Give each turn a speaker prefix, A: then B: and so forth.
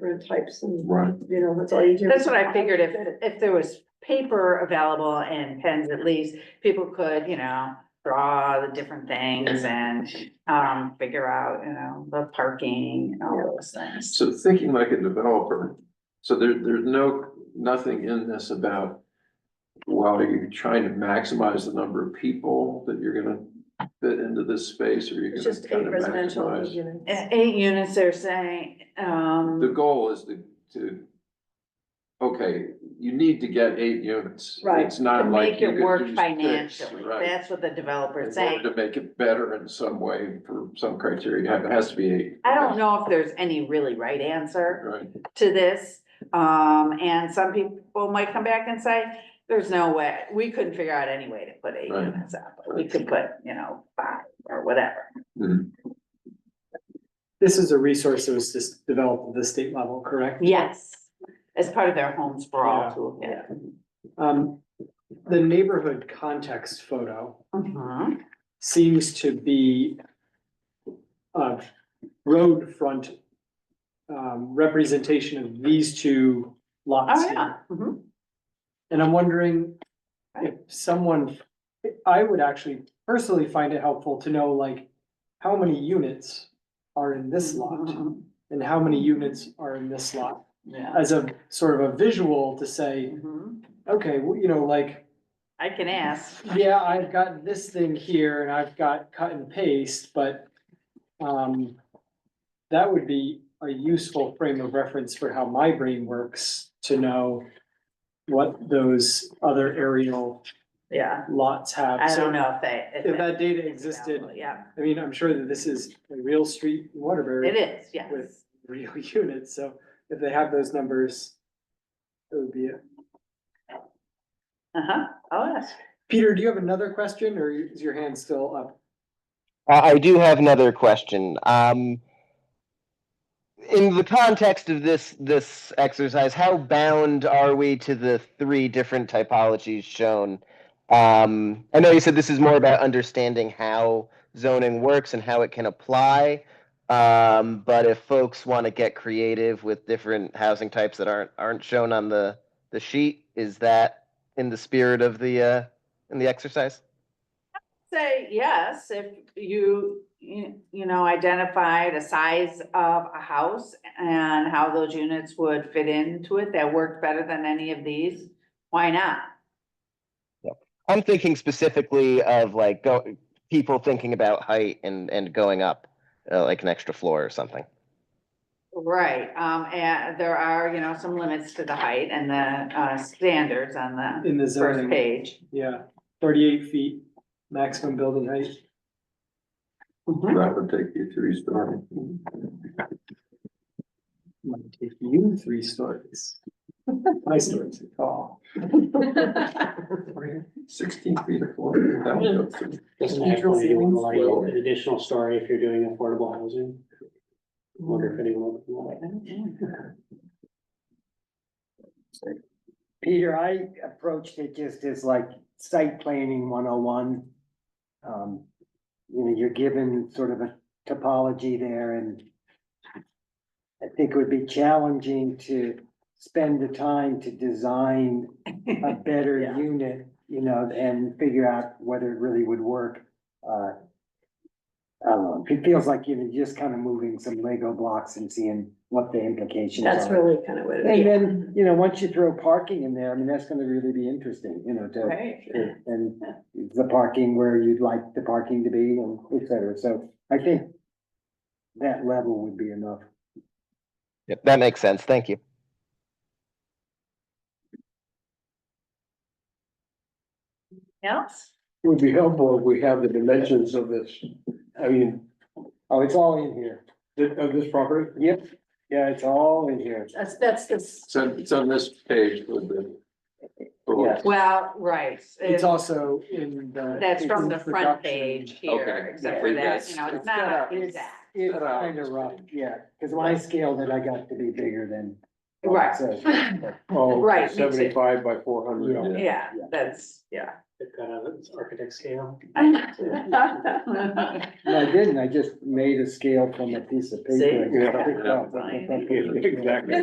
A: different types and,
B: Right,
A: you know, that's all you do.
C: That's what I figured, if, if there was paper available and pens at least, people could, you know, draw the different things and, um, figure out, you know, the parking and all those things.
B: so thinking like a developer, so there, there's no, nothing in this about. While you're trying to maximize the number of people that you're gonna fit into this space, or you're
A: It's
B: gonna
A: just
B: kind
A: eight
B: of
A: residential
B: maximize.
A: units.
C: Eh, Eight units, they're saying,
B: The
C: um,
B: goal is to, to. Okay, you need to get eight units.
A: Right,
B: It's
C: to
B: not like.
C: make
B: you
C: it
B: could
C: work
B: use six,
C: financially,
B: Right.
C: that's what the developer's
B: In
C: saying.
B: order to make it better in some way for some criteria, you have- it has to be eight.
C: I don't know if there's any really right answer.
B: Right,
C: to this. Um, and some people might come back and say, there's no way, we couldn't figure out any way to put eight
B: Right.
C: units up. but We could put, you know, five or whatever.
D: This is a resource that was just developed at the state level, correct?
C: Yes. As part of their home sprawl
D: Yeah.
C: toolkit.
D: Um, the neighborhood context photo
C: Mhm.
D: seems to be a road front um, representation of these two lots
C: Oh,
D: here.
C: yeah. Mhm.
D: And I'm wondering if someone, I would actually personally find it helpful to know like how many units are in this lot
C: Mhm.
D: and how many units are in this lot
C: Yeah.
D: as a sort of a visual to say,
C: Mhm.
D: okay, well, you know, like,
C: I can ask.
D: yeah, I've got this thing here and I've got cut and paste, but um that would be a useful frame of reference for how my brain works to know what those other aerial
C: Yeah.
D: lots have.
C: I
D: So
C: don't know if they.
D: If that data
C: it's
D: existed,
C: available. Yeah,
D: I mean, I'm sure that this is a real street in
C: it
D: Waterbury,
C: is, yes.
D: With- real units, so if they have those numbers, it would be it.
C: Uh-huh. I'll ask.
D: Peter, do you have another question or is your hand still up?
E: I I do have another question. Um, in the context of this this exercise, how bound are we to the three different typologies shown? Um, I know you said this is more about understanding how zoning works and how it can apply. Um, but if folks want to get creative with different housing types that aren't aren't shown on the the sheet, is that in the spirit of the uh, in the exercise?
C: say yes, if you, you, you know, identified a size of a house and how those units would fit into it that worked better than any of these, why not?
E: I'm thinking specifically of like go, people thinking about height and, and going up, uh, like an extra floor or something.
C: Right, um, and there are, you know, some limits to the height and the, uh, standards on the
D: In the
C: first
D: zoning,
C: page.
D: yeah, thirty-eight feet maximum building height.
B: that would take you three stories.
D: Might take you three stories. My stories, oh.
B: Sixteen feet of floor. that would go through.
F: Doesn't
G: Procedural
F: actually anyone
G: ceilings.
F: like
B: Well-
F: an additional story if you're doing affordable housing? Wonder if anyone would like.
G: Peter, I approached it just as like site planning one oh one. Um, you know, you're given sort of a topology there and. I think it would be challenging to spend the time to design a better
C: Yeah.
G: unit, you know, and figure out whether it really would work. Uh, I don't know, it feels like you're just kind of moving some Lego blocks and seeing what the implications are.
A: That's really kind of what it
G: And
A: is.
G: then, you know, once you throw parking in there, I mean, that's gonna really be interesting, you know, to,
C: Right,
G: and the parking where you'd like the parking to be and et cetera, so I think that level would be enough.
E: Yep, that makes sense. Thank you.
C: else?
H: Would be helpful if we have the dimensions of this, I mean,
G: Oh, it's all in here.
H: thi- of this property.
G: Yep, yeah, it's all in here.
A: That's, that's this.
B: It's on, it's on this page with the.
G: Yeah.
C: Well, right.
D: It's
C: uh,
D: also in the.
C: That's from the
D: it's
C: front
D: production.
C: page here,
B: Okay,
C: except
B: yeah.
C: for that,
B: Yes.
C: you know, it's
G: It's
C: not
G: got a-
C: a
G: it's-
C: exact.
G: It's
B: Cut out.
G: kinda rough, yeah, cause when I scaled it, I got to be bigger than. what it
C: Right.
G: says.
H: Oh,
C: Right, makes it-
H: Seventy-five by four
G: Yeah.
H: hundred.
C: Yeah, that's, yeah.
F: They've got a, it's architect scale.
G: No, I didn't, I just made a scale from a piece of
C: See?
G: paper.
H: Yeah.
G: Picked up.
C: Fine.
H: Exactly.